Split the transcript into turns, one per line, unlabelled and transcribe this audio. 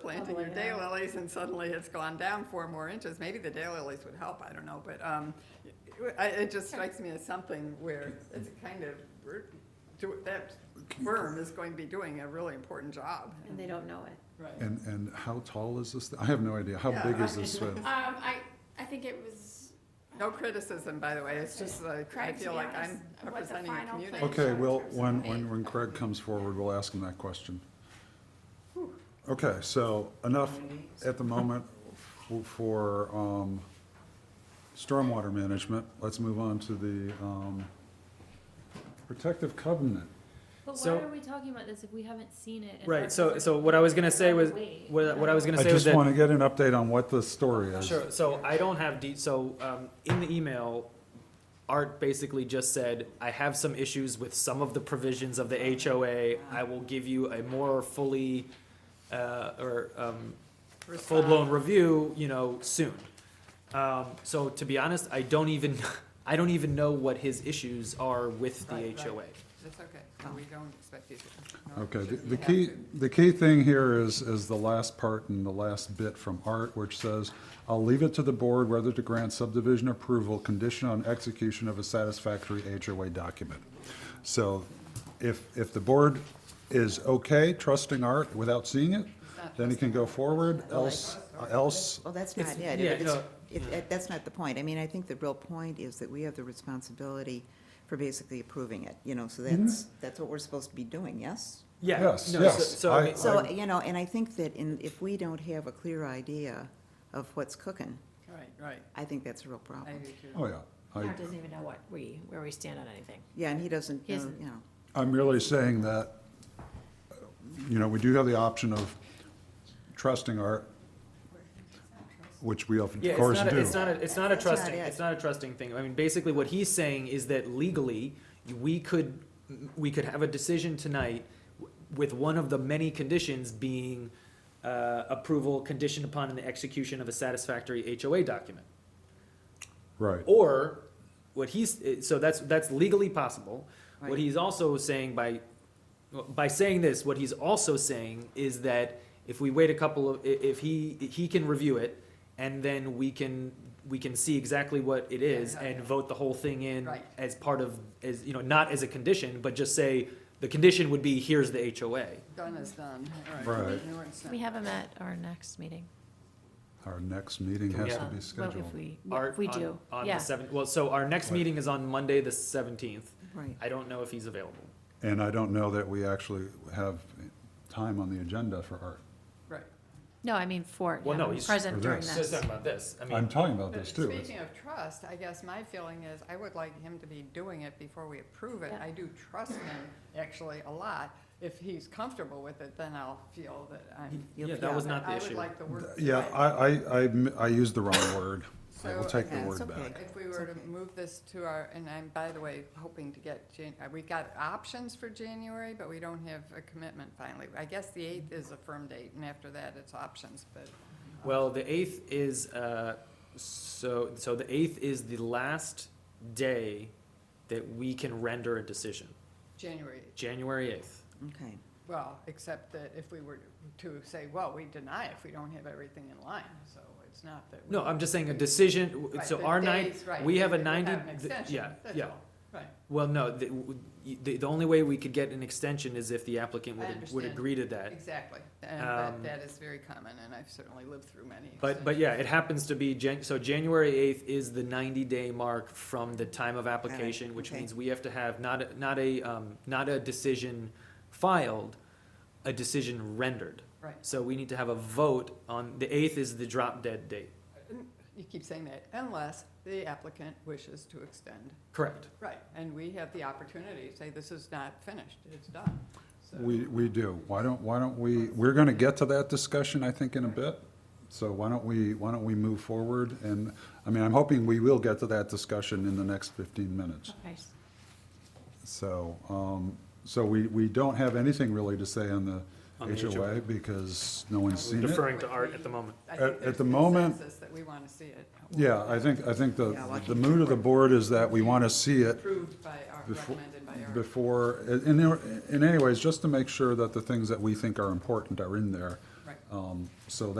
planting your
Lovely, yeah.
daylilies and suddenly it's gone down four more inches. Maybe the daylilies would help, I don't know, but, um, I, it just strikes me as something where it's kind of, we're- do- that worm is going to be doing a really important job.
and they don't know it.
Right.
And, and how tall is this? thi- I have no idea. How
Yeah.
big is this? uh,
Um, I, I think it was,
No criticism, by the way, it's just like, I
Craig, to
feel
be
like
honest,
I'm
what the
representing a
final
community.
plan-
Okay, well,
Sorry,
when,
sorry.
when, when Craig comes forward, we'll ask him that question. Okay, so enough at the moment f- for, um, stormwater management. Let's move on to the, um, protective covenant.
But why
So-
are we talking about this if we haven't seen it? and
Right,
aren't
so,
prepared?
so what I was gonna say was,
Wait.
what, what I was gonna
I
say
just
was that.
want to get an update on what the story is.
Sure, so I don't have de, so, um, in the email, Art basically just said, I have some issues with some of the provisions
Oh,
of the HOA. I will give you a more fully, uh, or, um, full-blown review, you know, soon. Um, so to be honest, I don't even, I don't even know what his issues are with the
Right, right.
HOA.
That's okay,
Oh.
No, we don't expect you to. nor
Okay, the-
should you
the
have
key,
to.
the key thing here is, is the last part and the last bit from Art, which says, "I'll leave it to the board whether to grant subdivision approval condition on execution of a satisfactory HOA document." So if, if the board is okay trusting Art without seeing it, then it can go forward, else, else,
Well, that's not it.
yeah,
It's-
no.
it- it- That's not the point. I mean, I think the real point is that we have the responsibility for basically approving it, you know, so that's, that's what we're supposed to be doing, yes?
Yeah, no,
Yes,
so,
yes,
so, I
I-
mean-
So, you know, and I think that in, if we don't have a clear idea of what's cooking,
Right, right,
I think that's a real
I
problem.
do too.
oh yeah. I,
Mark doesn't even know what we, where we stand on anything.
Yeah, and he doesn't,
He
know,
isn't-
you know.
I'm really saying that, you know, we do have the option of trusting Art, which we of
Yeah, it's
course
not, a,
do.
it's not a, it's not a
That's not
trusting,
it.
it's not a trusting thing. I mean, basically what he's saying is that legally, we could, we could have a decision tonight w- with one of the many conditions being, uh, approval conditioned upon the execution of a satisfactory HOA document.
Right.
Or what he's, eh, so that's, that's legally possible. What
Right.
he's also saying by, by saying this, what he's also saying is that if we wait a couple of, i- if he, he can review it and then we can, we can see exactly what it is
Yeah, yeah,
and
yeah.
vote the whole thing in
Right.
as part of, as, you know, not as a condition, but just say, the condition would be, here's the HOA.
Done is done, all right.
Right.
No, it's not.
We have them at our next meeting.
Our next meeting
Can we
has to
have-
be
Uh, Well,
scheduled.
if we,
Art
if we
on-
do,
On the
yeah.
seventh, well, so our next
Right.
meeting is on Monday, the seventeenth.
Right.
I don't know if he's available.
And I don't know that we actually have time on the agenda for Art.
Right.
No, I mean for,
Well, no,
yeah,
he's-
present
For
during
this.
So let's
this.
talk about this. I mean.
I'm talking about this too.
Speaking of trust, I guess my feeling is I would like him to be doing it before we approve it.
Yeah.
I do trust him actually a lot. If he's comfortable with it, then I'll feel that I'm.
Yeah, that was not the
I would
issue.
like the work.
Yeah, I, I, I, m- I used the wrong word. I will
So,
take the
okay,
word
it's okay.
back.
If we
It's
were to
okay.
move this to our, and I'm, by the way, hoping to get, Jan- uh, we got options for January, but we don't have a commitment finally. I guess the eighth is a firm date, and after that, it's options, but
Well, the eighth is, uh, so, so the eighth is the last day that we can render a decision,
January,
January eighth.
Okay.
well, except that if we were to say, well, we deny if we don't have everything in line, so it's not that. we-
No, I'm just saying a decision, w-
Right,
so
the
our nine,
days, right,
we have a
would
ninety,
an
th-
extension,
yeah,
that's
yeah.
all. Right,
Well, no, the, w- y- the, the only way we could get an extension is if the applicant
I
would, would
understand.
agree to that.
exactly. And that,
Um,
that is very common, and I've certainly lived through many.
But, but
extensions.
yeah, it happens to be Jan, so January eighth is the ninety-day mark from the time of application, which
okay.
means we have to have not, a- not a, um, not a decision filed, a decision rendered.
Right.
So we need to have a vote on, the eighth is the drop dead date.
You keep saying that, unless the applicant wishes to extend.
Correct.
Right, and we have the opportunity to say, this is not finished, it's done. So-
We, we do. Why don't, why don't we, we're gonna get to that discussion, I think, in a bit. So why don't we, why don't we move forward? And, I mean, I'm hoping we will get to that discussion in the next fifteen minutes.
Okay.
So, um, so we, we don't have anything really to say on the
On the
HOA
HOA.
because no one's seen it.
Deferring to Art at the moment.
I
at-
think
at
there's
the moment-
consensus that we want to see it
Yeah, I think, I think the,
Yeah, well, I
the
think-
mood of the board is that we want to see it
approved by our,
Befo-
recommended by our.
before, in, in anyways, just to make sure that the things that we think are important are in there.
Right.
Um, Um, So